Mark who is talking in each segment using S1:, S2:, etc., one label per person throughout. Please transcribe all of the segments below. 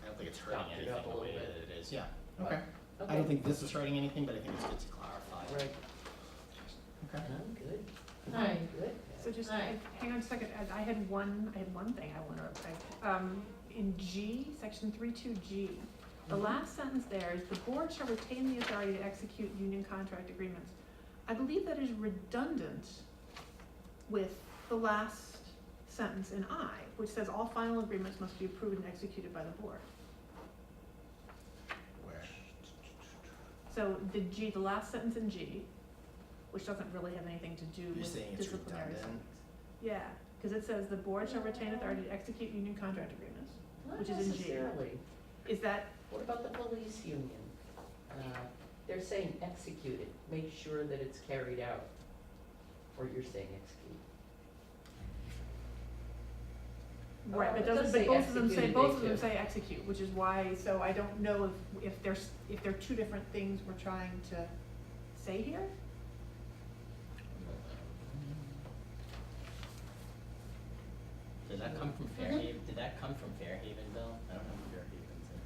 S1: hurting
S2: Cracked it
S1: anything
S2: up a
S1: the way
S2: little
S1: that it is.
S3: Yeah,
S1: But
S3: okay. I
S2: Okay.
S3: don't think this is hurting anything, but I think it's good to clarify.
S2: Right,
S3: Okay.
S2: I'm good,
S4: Hi.
S2: good.
S5: So just,
S4: Aye.
S5: hang on a second, I- I had one, I had one thing I wanna, I- um, in G, section three two G, the
S2: Mhm.
S5: last sentence there is, the board shall retain the authority to execute union contract agreements. I believe that is redundant with the last sentence in I, which says all final agreements must be approved and executed by the board.
S3: Where?
S5: So the G, the last sentence in G, which doesn't really have anything to do
S3: You're
S5: with
S3: saying
S5: disciplinary
S3: it's redundant?
S5: settings. Yeah, because it says the board shall retain authority to execute union contract agreements. which is in G.
S2: Not necessarily.
S5: Is that,
S2: What about the police union? Uh, They're saying execute it, make sure that it's carried out. Or you're saying execute.
S5: right,
S2: Oh,
S5: but
S2: it does
S5: doesn't, but
S2: say
S5: both of them say,
S2: execute,
S5: both of
S2: they
S5: them
S2: do.
S5: say execute, which is why, so I don't know if, if there's, if there are two different things we're trying to say here?
S3: Did that come from Fairhaven, did that come from Fairhaven, Bill? I don't know if Fairhaven's in.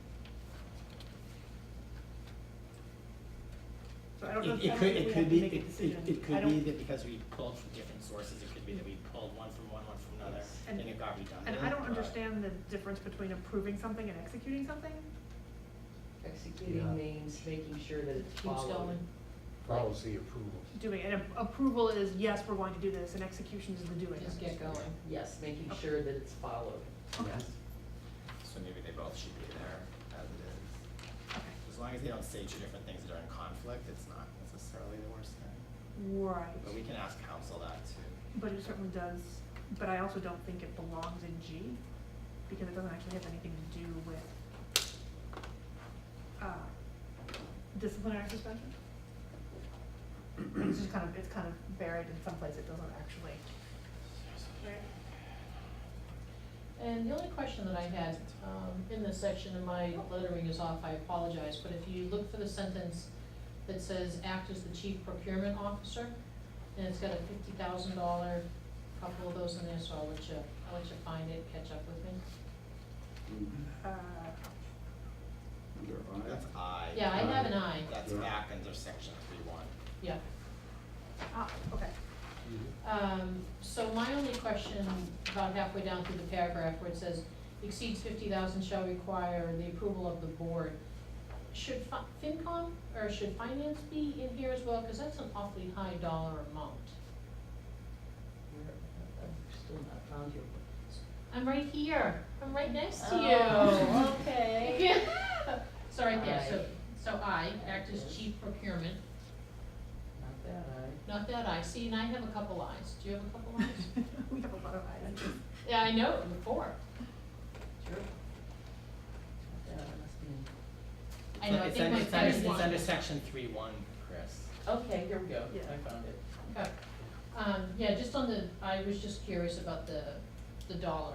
S5: So I don't know if
S3: It,
S5: that's
S3: it could,
S5: if we
S3: it
S5: have
S3: could
S5: to
S3: be,
S5: make a
S3: it, it,
S5: decision.
S3: it
S5: I
S3: could
S5: don't-
S3: be that because we pulled from different sources, it could be that we pulled one from one, one from another,
S2: Yes.
S3: and
S5: And-
S3: it got redundant.
S5: And I don't
S3: but-
S5: understand the difference between approving something and executing something.
S2: Executing
S6: Yeah.
S2: means making sure that it's
S4: Keeps
S2: followed.
S4: going.
S6: Policy approval.
S5: Doing, it. and a- approval is, yes, we're going to do this, and execution is the doing.
S4: Just get going.
S2: Yes, making sure that it's followed,
S5: Okay.
S2: yes.
S3: So maybe they both should be there as it is.
S5: Okay.
S3: As long as they don't say two different things that are in conflict, it's not necessarily the worst thing. But we
S5: Right,
S3: can ask council that too.
S5: but it certainly does, but I also don't think it belongs in G, because it doesn't actually have anything to do with uh, disciplinary suspension. It's just kind of, it's kind of buried in some place, it doesn't actually.
S4: And the only question that I had, um, in this section, and my lettering is off, I apologize, but if you look for the sentence that says act as the chief procurement officer, and it's got a fifty thousand dollar, couple of those in there, so I'll let you, I'll let you find it, catch up with me.
S5: Uh,
S6: Under
S3: That's I.
S4: Yeah, I have an eye,
S3: That's
S6: Yeah.
S3: back under section three one.
S4: yeah.
S5: ah, okay.
S4: Um, so my only question, about halfway down through the paragraph where it says, exceeds fifty thousand shall require the approval of the board. Should fi- FinCom, or should finance be in here as well, cause that's an awfully high dollar amount.
S2: Where- I've still not found your,
S4: I'm right here, I'm right next to you.
S2: Oh, okay.
S4: So right there, so,
S2: Aye.
S4: so I act as chief procurement,
S2: not that I,
S4: not that I, see, and I have a couple eyes, do you have a couple eyes?
S5: We have a lot of items.
S4: Yeah, I know, four,
S2: sure. Not that I must be in.
S4: I know, I
S3: It's
S4: think
S3: under-
S4: my
S3: it's under-
S4: third one.
S3: It's under section three one, Chris.
S2: Okay, here we go,
S5: Yeah.
S2: I found it.
S4: Okay, um, yeah, just on the, I was just curious about the, the dollar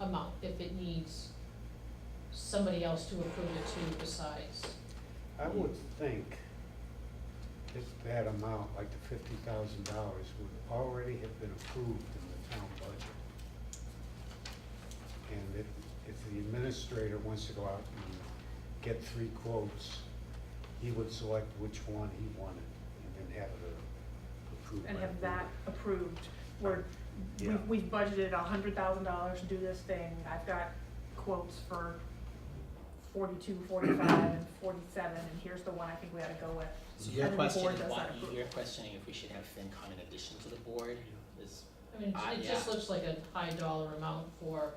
S4: amount, if it needs somebody else to approve it to besides.
S6: I would think that that amount, like the fifty thousand dollars, would already have been approved in the town budget. And if, if the administrator wants to go out and get three quotes, he would select which one he wanted and then have it approved.
S5: and
S6: by
S5: have
S6: the
S5: that
S6: board.
S5: approved, where
S6: Yeah.
S5: we've, we've budgeted a hundred thousand dollars to do this thing, I've got quotes for forty-two, forty-five, and forty-seven, and here's the one I think we ought to go with.
S3: So your
S5: And then the
S3: question
S5: board
S3: is
S5: does
S3: why,
S5: that approve.
S3: you're questioning if we should have FinCom in addition to the board is,
S4: I mean,
S3: Ah,
S4: it- it just
S3: yeah.
S4: looks like a high dollar amount for,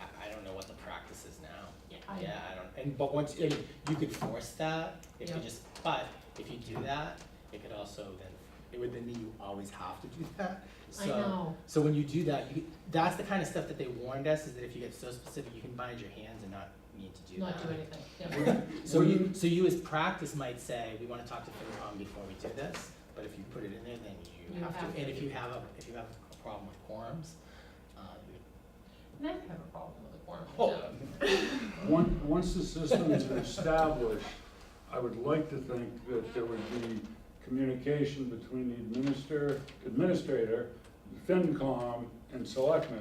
S3: I, I don't know what the practice is now.
S4: yeah, I,
S3: Yeah, I don't, and but once, and you could force that, if you
S4: Yeah.
S3: just, but if you do that, it could also then, it would then mean you always have to do that.
S4: I
S3: So,
S4: know,
S3: So when you do that, you, that's the kind of stuff that they warned us, is that if you get so specific, you can bind your hands and not need to do that.
S4: not do anything, yeah.
S3: So you, so you as practice might say, we wanna talk to FinCom before we do this, but if you put it in there, then you
S4: You
S3: have
S4: have
S3: to, and
S4: to.
S3: if you have a, if you have a problem with quorums, uh, you-
S4: And I have a problem with the quorum.
S3: oh,
S7: Once, once the system is established, I would like to think that there would be communication between the administrator, administrator, FinCom, and selectmen